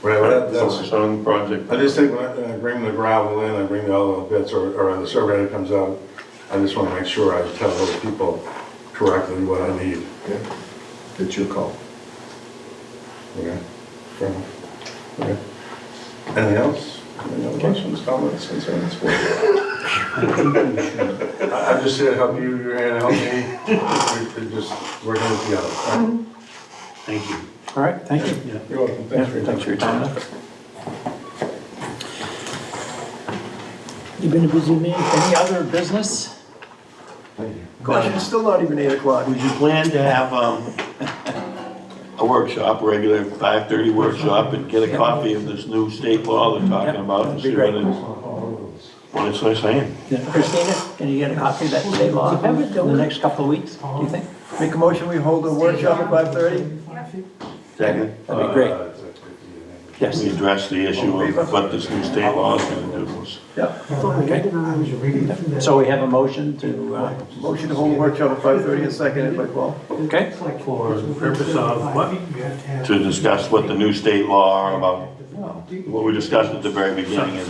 Right, That's that's, its own project. I just think when I when I bring the gravel in, I bring the other bits, or, or the survey that comes out, I just wanna make sure I tell those people correctly what I need. Okay. It's your call. Okay. Fair enough. Okay. Anything else? Any other questions, comments, concerns? I- I'm just here to help you, you're here to help me. We- We're just, we're here together. All right? Mm-hmm. Thank you. All right, thank you. Yeah. You're welcome, Yeah, thanks for your Thanks time. for your time. You've been a busy man. Any other business? Gosh, it's still not even eight o'clock. Would you plan to have um, a workshop, regular 5:30 workshop, and get a copy of this new state law they're talking Yeah, about? and that'd be see great. what it- What it's they're saying. Yeah, Christina, can you get a copy of that state law in the next couple of weeks, do you think? Make a motion, we hold a workshop at five thirty? Second, That'd be great. Uh, it's like 50 and then- Yes. we address the issue of what this new state law is going to do. Yeah. So we have a motion to, uh, Motion to hold a workshop at five thirty and second it by twelve. okay? For the purpose of what? To discuss what the new state law are about, what we discussed at the very beginning. is-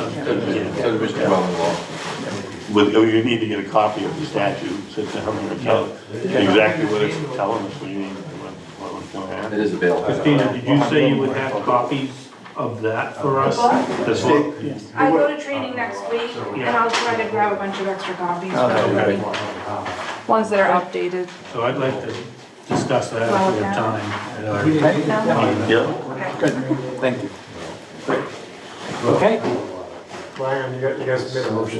With, oh, you need to get a copy of the statute, so to help you tell exactly what it's telling us, what you need, what what we're going to have. It is available. Christina, did you say you would have copies of that for us? This one? I go to training next week, and I'll try to grab a bunch of extra copies. Ones that are updated. So I'd like to discuss that if we have time. at our- Yeah. Good, thank you. Okay?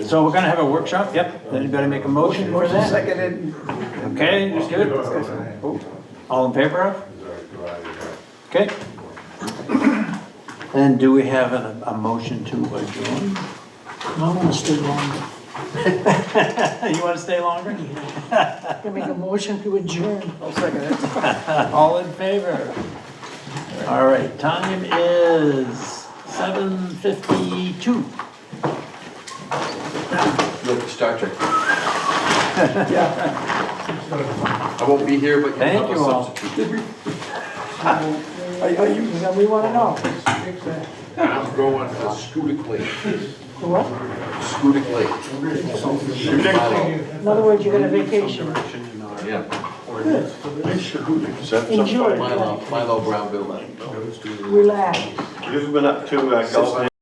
So we're gonna have a workshop, yep, anybody make a motion for Motion that? seconded. Okay, that's good. Oh, All in favor of? Okay. And do we have a, a motion to adjourn? I want to stay longer. You wanna stay longer? I can make a motion to adjourn. I'll second it. All in favor? All right, time is seven fifty-two. Look, Star Trek. I won't be here, but you can Thank have a you all. substitute. Are are you, then we want to know. I'm going to Scudic Lake, What? Scudic Lake. In other words, you're going to vacation. Yeah, Enjoy. Milo, Milo Brownville. Relax. You've been up to uh, Gulf